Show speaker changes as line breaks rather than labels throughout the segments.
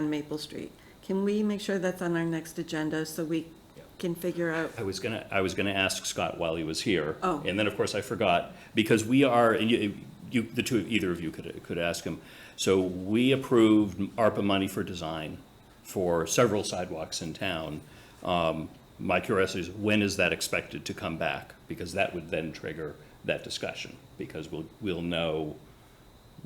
on Maple Street. Can we make sure that's on our next agenda so we
Yeah.
can figure out?
I was gonna, I was gonna ask Scott while he was here.
Oh.
And then, of course, I forgot, because we are, and you, you, the two, either of you could, could ask him. So we approved ARPA money for design for several sidewalks in town. Um, My curiosity is, when is that expected to come back? Because that would then trigger that discussion, because we'll, we'll know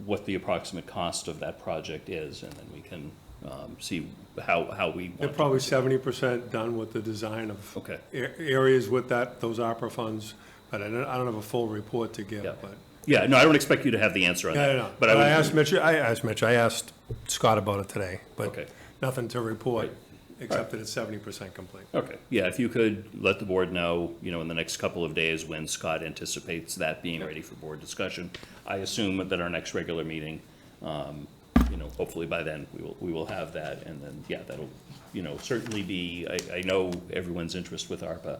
what the approximate cost of that project is, and then we can, um, see how, how we want
They're
to-
probably seventy percent done with the design of.
Okay.
a- Areas with that, those opera funds, but I don't, I don't have a full report to give,
Yeah.
but.
Yeah, no, I don't expect you to have the answer on
No,
that.
no, no.
But I would.
I asked Mitch, I asked Mitch, I asked Scott about it today, but
Okay.
nothing to report,
Right.
except that it's seventy percent complete.
Okay, yeah, if you could let the board know, you know, in the next couple of days when Scott anticipates that being ready for board discussion. I assume that our next regular meeting, um, you know, hopefully by then, we will, we will have that, and then, yeah, that'll, you know, certainly be, I, I know everyone's interest with ARPA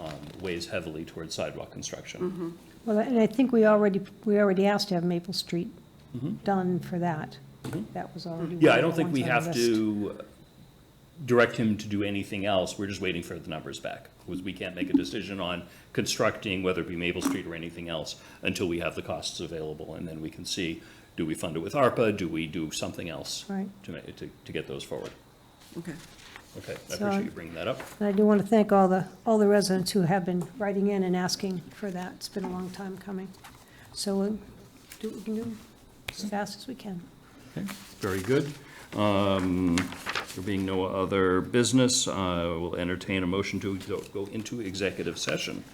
um, weighs heavily towards sidewalk construction.
Well, and I think we already, we already asked to have Maple Street done for that. That was already.
Mm-hmm. Yeah, I
one-
don't think
one's
we
on the
have
list.
to direct him to do anything else, we're just waiting for the numbers back. Because we can't make a decision on constructing, whether it be Maple Street or anything else, until we have the costs available, and then we can see, do we fund it with ARPA, do we do something else?
Right.
To, ma- to, to get those forward.
Okay.
Okay, I
So-
appreciate you bringing that up.
And I do want to thank all the, all the residents who have been writing in and asking for that. It's been a long time coming. So we'll do what we can do as fast as we can.
Okay, very good. Um, There being no other business, I will entertain a motion to go- go into executive session.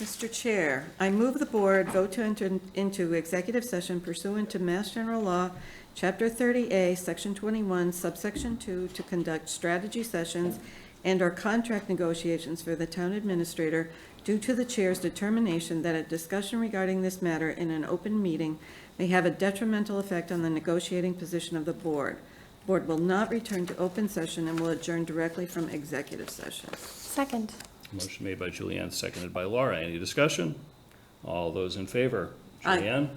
Mr. Chair, I move the board vote to enter into executive session pursuant to Mass General Law, Chapter 30A, Section 21, subsection 2, to conduct strategy sessions and/or contract negotiations for the town administrator due to the chair's determination that a discussion regarding this matter in an open meeting may have a detrimental effect on the negotiating position of the board. Board will not return to open session and will adjourn directly from executive session.
Second.
Motion made by Julianne, seconded by Laura. Any discussion? All those in favor?
Aye.
Julianne?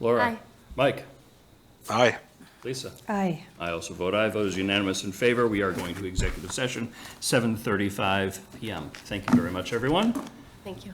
Laura?
Aye.
Mike?
Aye.
Lisa?
Aye.
I also vote aye. Vote is unanimous in favor. We are going to executive session, 7:35 PM. Thank you very much, everyone.
Thank you.